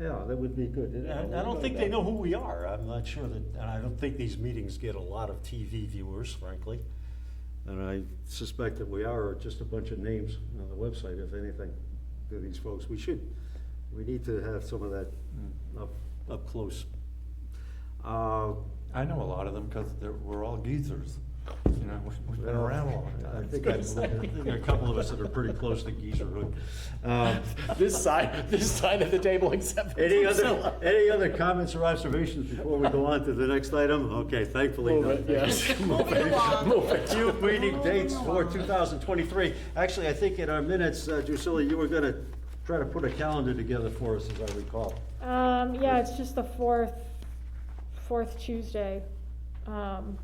Yeah, that would be good. Yeah, I- I don't think they know who we are. I'm not sure that, and I don't think these meetings get a lot of TV viewers, frankly. And I suspect that we are just a bunch of names on the website, if anything, to these folks. We should, we need to have some of that up, up close. Uh, I know a lot of them because we're all geezers. You know, we- we've been around a long I time. think I, I think there are a couple of us that are pretty close to geezerhood. Um, This side, this side of the table except for Any Priscilla. other, any other comments or observations before we go on to the next item? Okay, thankfully. Move no. it, yes. Move it along. Move it. Few meeting dates for 2023. Actually, I think in our minutes, uh, Drusilla, you were going to try to put a calendar together for us, as I recall. Um, yeah, it's just the fourth, fourth Tuesday. Um,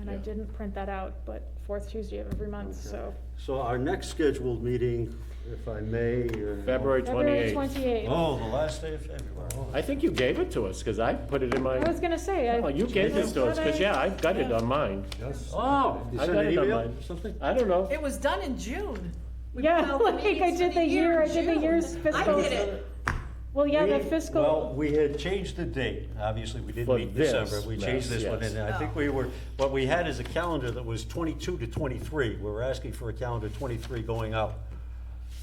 and I Yeah. didn't print that out, but fourth Tuesday of every month, so. So our next scheduled meeting, if I may. uh, February February twenty-eighth. twenty-eighth. Oh, the last day of February. Oh, I think you gave it to us, because I put it in my, I was gonna say, I. Oh, you gave this to us, because, yeah, I've got it on mine. Yes. Oh. You I sent got an it on email mine. or something? I don't know. It was done in June. We Yeah, filed the like I meetings did for the year- I in did the June. year's fiscal- I did it. Well, yeah, the We- Well, fiscal, we had changed the date, obviously, we didn't For meet in December, this we changed mess, this one, yes. and I think we were, what we had is a calendar that was twenty-two to twenty-three, we were asking for a calendar twenty-three going out.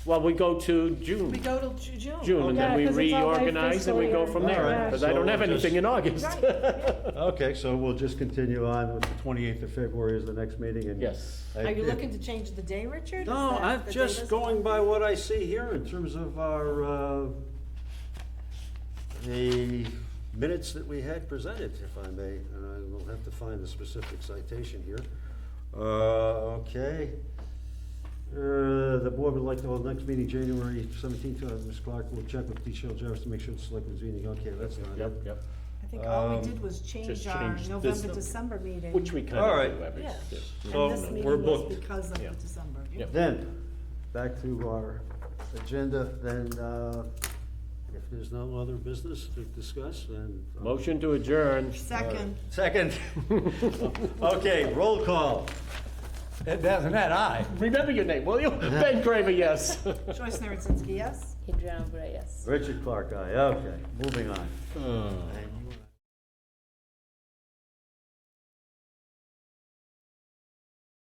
Well, we go to June, We go till Ju- June. June, and Yeah, then we 'cause it's all by reorganize and we fiscal go year. from All there, right, because I so don't have we'll just- anything in August. Okay, so we'll just continue on with the twenty-eighth of February is the next meeting, and. Yes. I- Are you looking to change the day, Richard? Is No, that I'm the just data's- going by what I see here in terms of our, uh, the minutes that we had presented, if I may, and I will have to find the specific citation here. Uh, okay. Uh, the board would like to hold next meeting, January seventeenth, uh, Ms. Clark will check with D. Shell Jarvis to make sure the selectmen's meeting, okay, that's not it. Yep, yep, I think all we Um, did was just change our change this- November, December meeting. which we kind All of right. do every. Yeah. yeah. So, And this we're meeting booked. was because of the December. Yep. Then, back to our agenda, then, uh, if there's no other business to discuss, then. uh, Motion to adjourn. Second. Second. Okay, roll call. It doesn't, that I. Remember your name, will you? Ben Craver, yes. Joyce Narodzinski, yes? Richard Clark, aye, okay, moving on.